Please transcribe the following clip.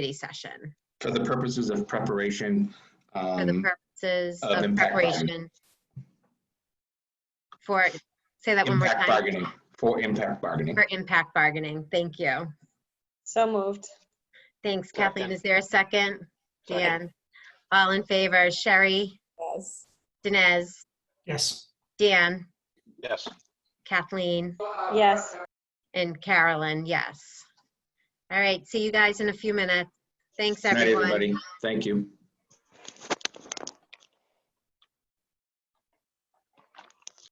committee session for the purposes of preparation. for the um, purposes of of impact bargaining. preparation for, say that one more Impact time, bargaining, for impact bargaining. for impact bargaining. Thank you. So moved. Thanks Kathleen. Second. Is there a second? Second. Dan? All in favor? Sherry, Yes. Dinesh, Yes. Dan, Yes. Kathleen, Yes. and Carolyn, yes. All right, see you guys in a few minutes. Thanks, Good night, everyone. everybody. Thank you.